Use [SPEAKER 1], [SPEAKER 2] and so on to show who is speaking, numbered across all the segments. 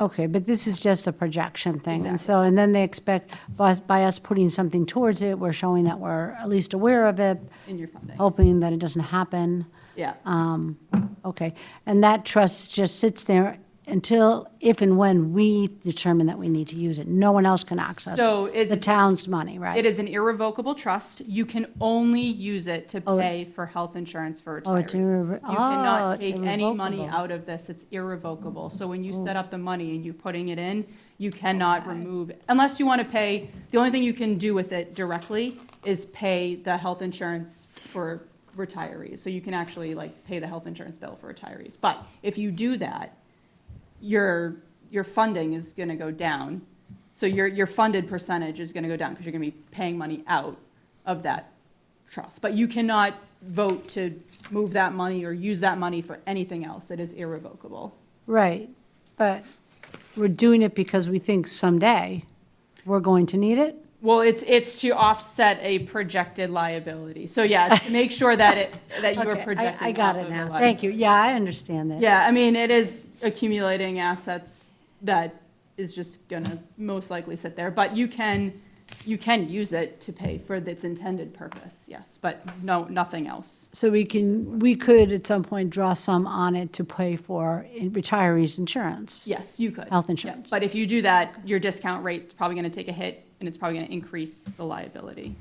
[SPEAKER 1] Okay, but this is just a projection thing, and so, and then they expect, by, by us putting something towards it, we're showing that we're at least aware of it,
[SPEAKER 2] in your funding.
[SPEAKER 1] hoping that it doesn't happen.
[SPEAKER 2] Yeah,
[SPEAKER 1] Um, Okay, and that trust just sits there until, if and when we determine that we need to use it. No one else can access
[SPEAKER 2] So it's-
[SPEAKER 1] the town's money, right?
[SPEAKER 2] it is an irrevocable trust. You can only use it to pay for health insurance for
[SPEAKER 1] Oh, it's
[SPEAKER 2] retirees.
[SPEAKER 1] irre-
[SPEAKER 2] You
[SPEAKER 1] oh,
[SPEAKER 2] cannot
[SPEAKER 1] it's
[SPEAKER 2] take any money
[SPEAKER 1] irrevocable. Oh.
[SPEAKER 2] out of this. It's irrevocable. So when you set up the money and you're putting it in, you cannot remove, unless you want to pay, the only thing you can do with it directly is pay the health insurance for retirees. So you can actually like pay the health insurance bill for retirees. But if you do that, your, your funding is going to go down. So your, your funded percentage is going to go down because you're going to be paying money out of that trust. But you cannot vote to move that money or use that money for anything else. It is irrevocable.
[SPEAKER 1] Right, but we're doing it because we think someday we're going to need it?
[SPEAKER 2] Well, it's, it's to offset a projected liability. So yeah, to make sure that it, that you are
[SPEAKER 1] Okay, I-
[SPEAKER 2] projecting
[SPEAKER 1] I got
[SPEAKER 2] off
[SPEAKER 1] it
[SPEAKER 2] of a
[SPEAKER 1] now.
[SPEAKER 2] li-
[SPEAKER 1] Thank you. Yeah, I understand that.
[SPEAKER 2] Yeah, I mean, it is accumulating assets that is just gonna most likely sit there, but you can, you can use it to pay for its intended purpose, yes, but no, nothing else.
[SPEAKER 1] So we can, we could at some point draw some on it to pay for in- retirees' insurance?
[SPEAKER 2] Yes, you could.
[SPEAKER 1] Health
[SPEAKER 2] Yeah,
[SPEAKER 1] insurance.
[SPEAKER 2] But if you do that, your discount rate's probably gonna take a hit, and it's probably gonna increase the liability.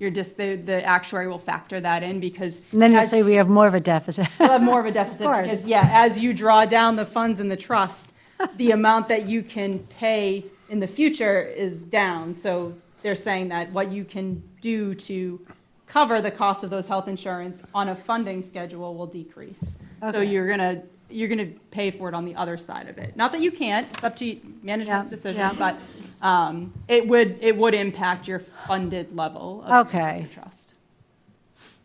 [SPEAKER 2] Your dis, the, the actuary will factor that in because.
[SPEAKER 1] And then you'll
[SPEAKER 2] as-
[SPEAKER 1] say we have more of a deficit.
[SPEAKER 2] We'll have more of a deficit
[SPEAKER 1] course.
[SPEAKER 2] because, yeah, as you draw down the funds in the trust, the amount that you can pay in the future is down. So they're saying that what you can do to cover the cost of those health insurance on a funding schedule will decrease. So
[SPEAKER 1] Okay.
[SPEAKER 2] you're gonna, you're gonna pay for it on the other side of it. Not that you can't, it's up to management's
[SPEAKER 1] Yeah,
[SPEAKER 2] decision, but um, it would, it would impact your funded level of
[SPEAKER 1] Okay.
[SPEAKER 2] the trust.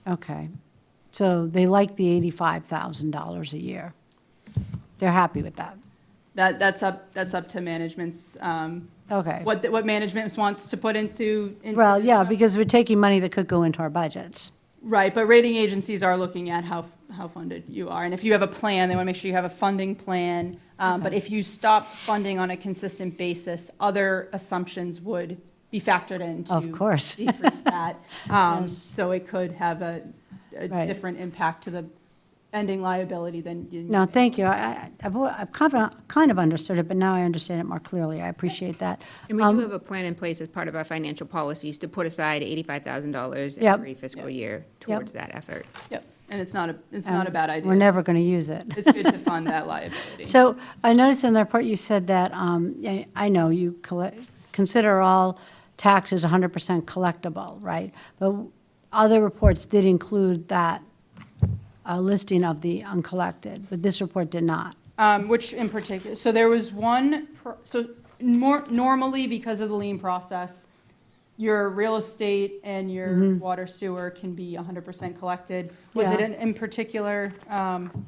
[SPEAKER 1] Okay. So they like the $85,000 a year. They're happy with that.
[SPEAKER 2] That, that's up, that's up to management's, um,
[SPEAKER 1] Okay.
[SPEAKER 2] what, the- what management wants to put into. into
[SPEAKER 1] Well,
[SPEAKER 2] the
[SPEAKER 1] yeah,
[SPEAKER 2] trust.
[SPEAKER 1] because we're taking money that could go into our budgets.
[SPEAKER 2] Right, but rating agencies are looking at how, how funded you are. And if you have a plan, they want to make sure you have a funding plan. Um, but if you stop funding on a consistent basis, other assumptions would be factored in to.
[SPEAKER 1] Of course.
[SPEAKER 2] Decrease that. Um, so it could have a, a
[SPEAKER 1] Right.
[SPEAKER 2] different impact to the ending liability than you.
[SPEAKER 1] No, thank you. I- I, I've, al- I've kind of, kind of understood it, but now I understand it more clearly. I appreciate that.
[SPEAKER 3] And we
[SPEAKER 1] Um,
[SPEAKER 3] do have a plan in place as part of our financial policies to put aside $85,000
[SPEAKER 1] Yep.
[SPEAKER 3] every fiscal
[SPEAKER 2] Yep.
[SPEAKER 3] year towards that effort.
[SPEAKER 2] Yep, and it's not a, it's not a bad idea.
[SPEAKER 1] Um, We're never going to use it.
[SPEAKER 2] It's good to fund that liability.
[SPEAKER 1] So I noticed in the report you said that, um, I- I know you collect, consider all taxes 100% collectible, right? But other reports did include that uh, listing of the uncollected, but this report did not.
[SPEAKER 2] Um, which in particular, so there was one, pro- so more, normally because of the lien process, your real estate and your water sewer can be hundred percent collected. Was it
[SPEAKER 1] Mm-hmm. Yeah.
[SPEAKER 2] an in particular, um,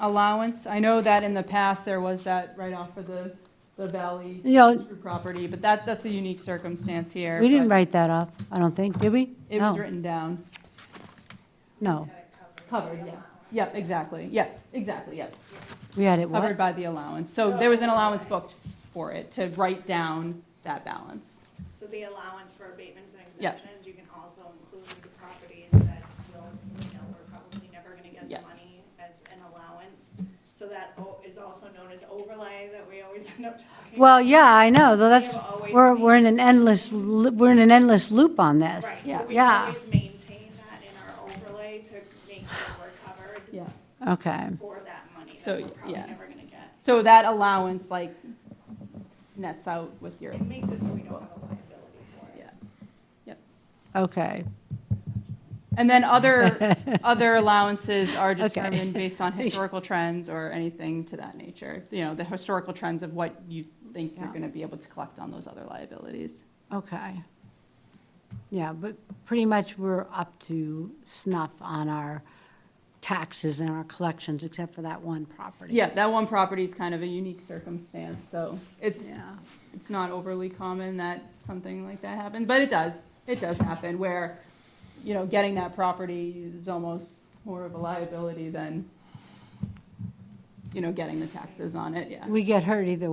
[SPEAKER 2] allowance? I know that in the past, there was that write-off for the, the valley
[SPEAKER 1] Yeah.
[SPEAKER 2] property, but that, that's a unique circumstance here.
[SPEAKER 1] We didn't
[SPEAKER 2] but
[SPEAKER 1] write that off, I don't think, did we?
[SPEAKER 2] It was
[SPEAKER 1] No.
[SPEAKER 2] written down,
[SPEAKER 1] No,
[SPEAKER 2] covered, yeah, yep, exactly, yep, exactly, yep.
[SPEAKER 1] we had it,
[SPEAKER 2] covered
[SPEAKER 1] what?
[SPEAKER 2] by the allowance. So there was an allowance booked for it to write down that balance.
[SPEAKER 4] So the allowance for abatements and
[SPEAKER 2] Yep.
[SPEAKER 4] exemptions, you can also include the properties that will, you know, we're probably never gonna get
[SPEAKER 2] Yep.
[SPEAKER 4] the money as an allowance. So that o- is also known as overlay that we always end up talking.
[SPEAKER 1] Well, yeah, I know, though that's,
[SPEAKER 4] They were always
[SPEAKER 1] we're, we're in an endless, lo- we're in an endless loop on this.
[SPEAKER 4] Right,
[SPEAKER 1] Yeah.
[SPEAKER 4] so we always maintain that in our overlay to make sure we're covered
[SPEAKER 2] Yeah.
[SPEAKER 1] Yeah, okay,
[SPEAKER 4] for that money
[SPEAKER 2] So,
[SPEAKER 4] that we're probably
[SPEAKER 2] yeah.
[SPEAKER 4] never gonna get.
[SPEAKER 2] So that allowance like nets out with your,
[SPEAKER 4] It makes it so we don't have a liability for it.
[SPEAKER 2] yeah.
[SPEAKER 1] okay.
[SPEAKER 2] And then other, other allowances are
[SPEAKER 1] Okay.
[SPEAKER 2] determined based on historical trends or anything to that nature. You know, the historical trends of what you think you're
[SPEAKER 1] Yeah.
[SPEAKER 2] going to be able to collect on those other liabilities.
[SPEAKER 1] Okay. Yeah, but pretty much we're up to snuff on our taxes and our collections, except for that one property.
[SPEAKER 2] Yeah, that one property is kind of a unique circumstance, so it's,
[SPEAKER 1] Yeah.
[SPEAKER 2] it's not overly common that something like that happens, but it does, it does happen where, you know, getting that property is almost more of a liability than
[SPEAKER 5] you know, getting the taxes on it, yeah.
[SPEAKER 2] We get hurt either way.